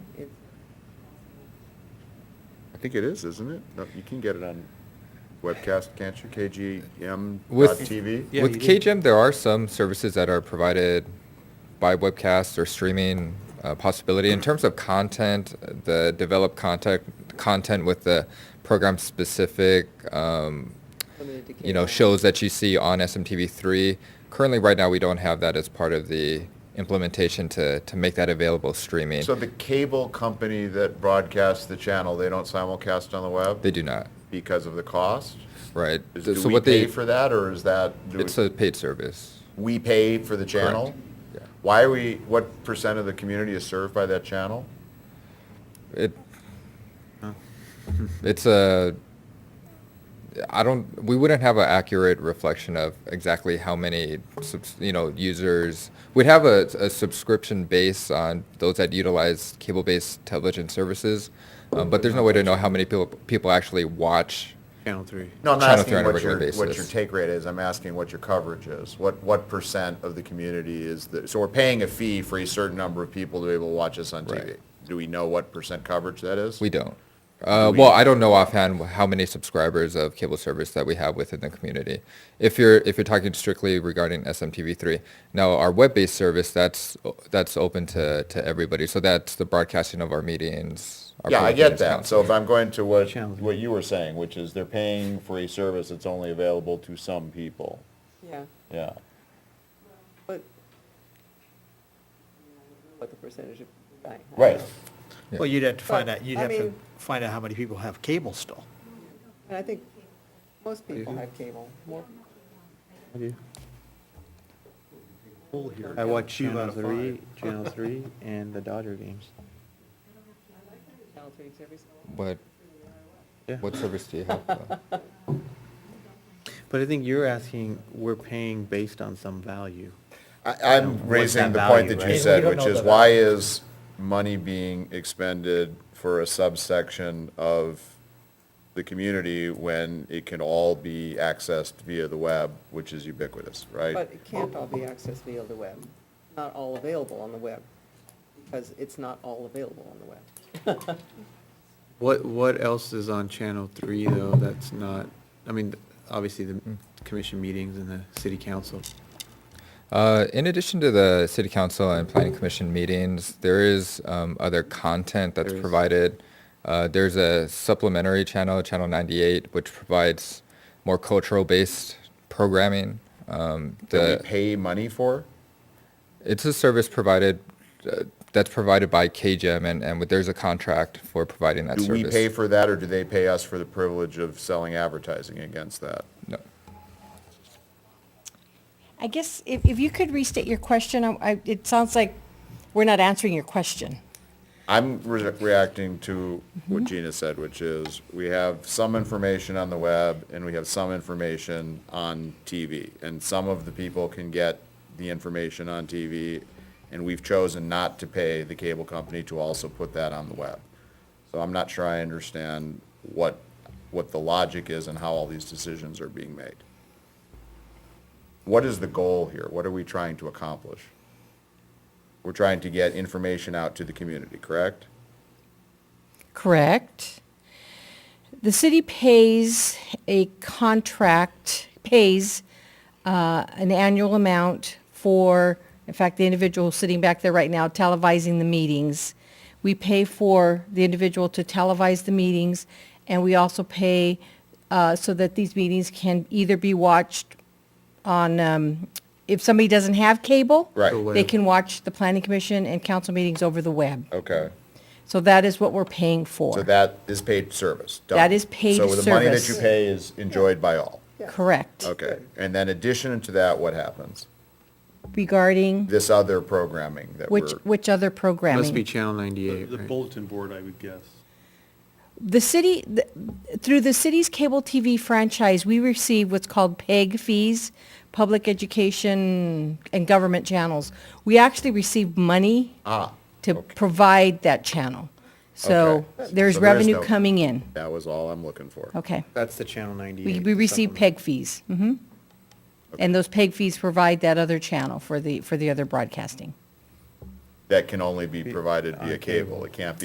think it is, isn't it? No, You can get it on webcast, can't you? KGM With- TV? Yeah, With you did. KGM, there are some services that are provided by webcast or streaming uh, possibility. In terms of content, the develop content content with the program specific, um, you know, shows that you see on SMTV3. Currently, right now, we don't have that as part of the implementation to, to make that available streaming. So the cable company that broadcasts the channel, they don't simulcast on the web? they do not, Because of the cost? right? Is- Th- Do so we what they pay for that, or is that, do we- it's a paid service. we pay for the channel? Yeah. Why are we, what percent of the community is served by that channel? It, it's a. I don't. We wouldn't have an accurate reflection of exactly how many, subs, you know, users. We'd have a, a subscription base on those that utilize cable-based television services, um, but there's no way to know how many people people actually watch. Channel three. No, I'm not Channel asking three on a what your, regular what your basis. take rate is, I'm asking what your coverage is. What, what percent of the community is, the- so we're paying a fee for a certain number of people to be able to watch us on TV. Right. Do we know what percent coverage that is? We don't. Uh, Do we- well, I don't know offhand how many subscribers of cable service that we have within the community. If you're if you're talking strictly regarding SMTV3, now our web-based service that's that's open to, to everybody. So that's the broadcasting of our meetings. Our Yeah, I public get meetings that. So if I'm going to what, Channel. what you were saying, which is they're paying for a service that's only available to some people. Yeah, Yeah. but what the percentage of, right. I don't Right. know. Yeah. Well, you'd have to find But, out, you'd I have to mean- find out how many people have cable still. And I think most people have cable, more, I watch Two out Channel of Three, five. Channel Three, and the Dodger games. Channel 3 service. What Yeah, what service do you have? though? but I think you're asking, we're paying based on some value. I, I'm What's raising that the point value, that right? you We said, don't which know is the why is money being expended for a subsection of the community when it can all be accessed via the web, which is ubiquitous, right? But it can't all be accessed via the web, not all available on the web, because it's not all available on the web. What, what else is on Channel Three, though, that's not, I mean, obviously the Hmm. commission meetings and the city council. Uh, in addition to the city council and planning commission meetings, there is um, other content that's There is. provided. Uh, there's a supplementary channel, Channel 98, which provides more cultural-based programming. Um, That we the, pay money for? it's a service provided uh, that's provided by KGM, and, and there's a contract for providing that Do service. we pay for that, or do they pay us for the privilege of selling advertising against that? no. I guess if, if you could restate your question, I, I- it sounds like we're not answering your question. I'm re- reacting to what Gina said, which is, we have some information on the web, and we have some information on TV. And some of the people can get the information on TV, and we've chosen not to pay the cable company to also put that on the web. So I'm not sure I understand what, what the logic is and how all these decisions are being made. What is the goal here? What are we trying to accomplish? We're trying to get information out to the community, correct? Correct. The city pays a contract, pays uh, an annual amount for, in fact, the individual sitting back there right now televising the meetings. We pay for the individual to televise the meetings, and we also pay uh, so that these meetings can either be watched on, um, if somebody doesn't have cable, Right. The they web. can watch the planning commission and council meetings over the web. Okay. So that is what we're paying for. Oh. So that is paid service. done. That is paid So the money that you service. pay is enjoyed by all. Correct. Okay. And then addition to that, what happens? Regarding This other programming that we're, which, which other Must be programming? Channel The ninety-eight, the right? bulletin board, I would guess. The city, the- through the city's cable TV franchise, we receive what's called PEG fees, public education and government channels. We actually receive money ah, to okay. provide that channel. So Okay. there's So there is revenue no- coming in. that was all I'm looking for. Okay. That's the Channel ninety-eight. We, we receive supplement. PEG fees. hmm And those PEG fees provide that other channel for the, for the other broadcasting. That can only be provided via cable. It can't be